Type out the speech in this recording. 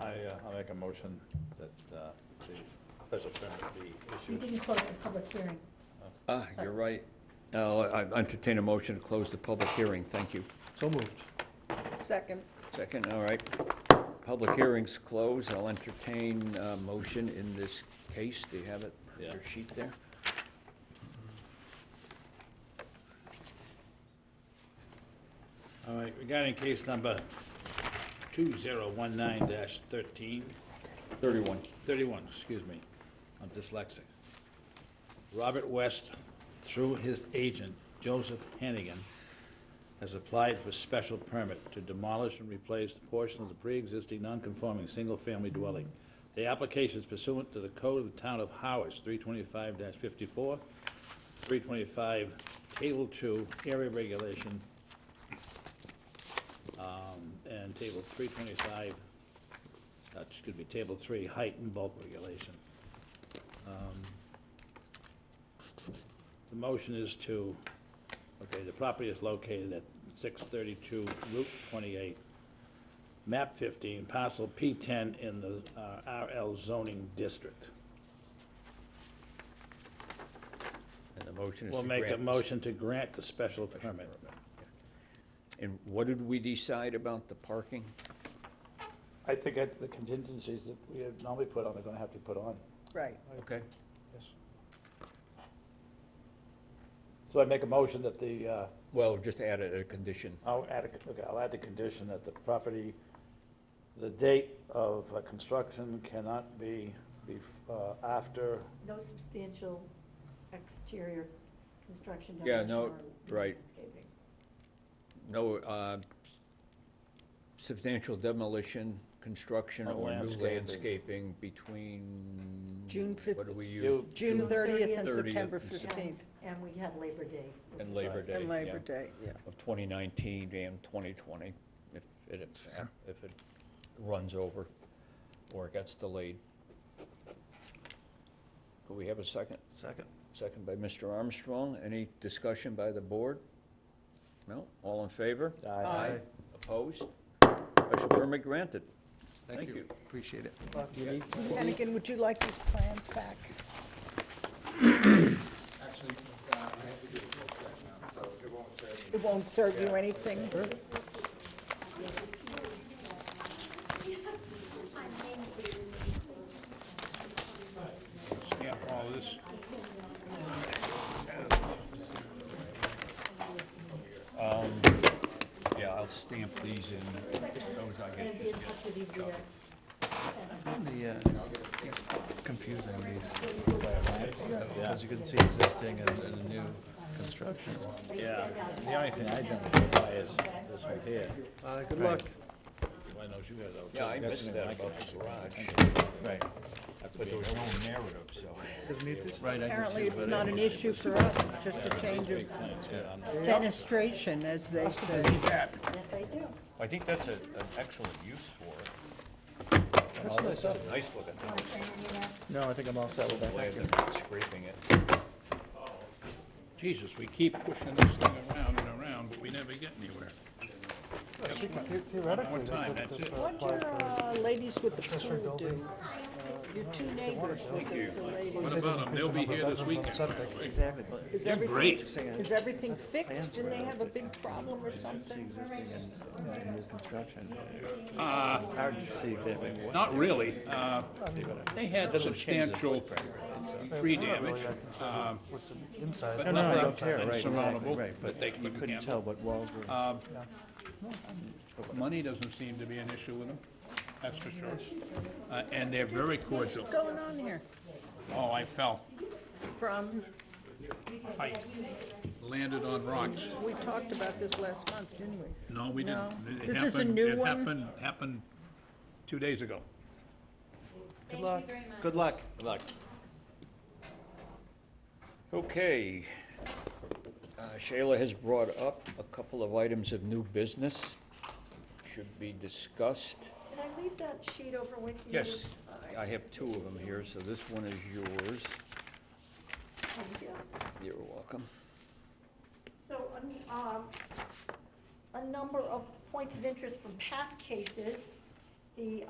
uh, I'll make a motion that uh, the special permit be We issued. didn't close the public hearing. Ah, you're right. Now, I I entertain a motion to close the public hearing. Thank you. So moved. Second. Second, all right. Public hearing's closed. I'll entertain a motion in this case. Do you have it, Yeah. your sheet there? All right, regarding case number 2019-13, Thirty-one. 31, excuse me, I'm dyslexic. Robert West, through his agent, Joseph Hannigan, has applied for special permit to demolish and replace the portion of the pre-existing non-conforming single-family dwelling. The application is pursuant to the code of the town of Howard's 325-54, 325 Table 2, area regulation, um, and Table 325, uh, excuse me, Table 3, height and bulk regulation. Um, The motion is to, okay, the property is located at 632 Route 28, map 15, parcel P10 in the uh, RL zoning district. And the motion is to We'll grant. make a this. motion to grant the special permit. And what did we decide about the parking? I think the contingencies that we normally put on are going to have to put on. Right. Okay. So I make a motion that the, uh, Well, just add it a condition. I'll add, a- okay, I'll add the condition that the property, the date of uh, construction cannot be, be, uh, after, No substantial exterior construction Yeah, demolition no, or right. landscaping. No, uh, substantial demolition, construction, Or or new landscaping. landscaping between. June fif- What do we use? you, June June 30th 30th and 30th September and And- 15th. And we had Labor Day. And Labor Day. And yeah, Labor Day, yeah. Of 2019 and 2020, if it, if it runs over or it gets delayed. Do we have a second? Second. Second by Mr. Armstrong. Any discussion by the board? No? All in favor? Aye. Opposed? Special permit granted. Thank you. Appreciate it. Hannigan, would you like these plans back? Actually, uh, I have to do a full set now, so it won't serve me. It won't serve you anything. yeah, all this. Um, Yeah, I'll stamp these in. Those I And guess be in just touch with you via, The, uh, it's confusing these, because you can see existing and and new construction. Yeah, the only thing I identify is this one here. Uh, Good luck. I know you guys are. Yeah, I missed that about the garage. Right. But there was no narrative, so. Right, I can Apparently, see, it's but not an issue for us, it's just a change of fenestration, as they say. yes, I do. I think that's a, an excellent use for it. Nice looking thing, Want to send an email? no, I think I'm all set with that. way Thank you. of scraping it. Jesus, we keep pushing this thing around and around, but we never get anywhere. Theoretically, they Time, that's it. What do uh, ladies with the pool do? Your two neighbors with the the What ladies. about them? They'll be here this weekend. Exactly, but Is They're everything- great. Is everything fixed? Didn't they have a big problem or something? existing and and new construction. It's hard to see if they have any wa- Uh, Not really. Uh, They had substantial tree damage, uh, but No, no, I nothing don't care, right, exactly, insurmountable. right, but They you can couldn't handle. tell what walls were. Money doesn't seem to be an issue with them, that's for sure. Uh, And they're very cordial. What's going on here? Oh, I fell, From, I landed on rocks. we talked about this last month, didn't we? No, we didn't. No. It This is a happened- new It one? happened, happened two days ago. Good luck. Good luck. Good luck. Okay. Uh, Shayla has brought up a couple of items of new business, should be discussed. Did I leave that sheet over with you? Yes, I have two of them here, so this one is yours. Thank you. You're welcome. So, um, um, a number of points of interest from past cases. The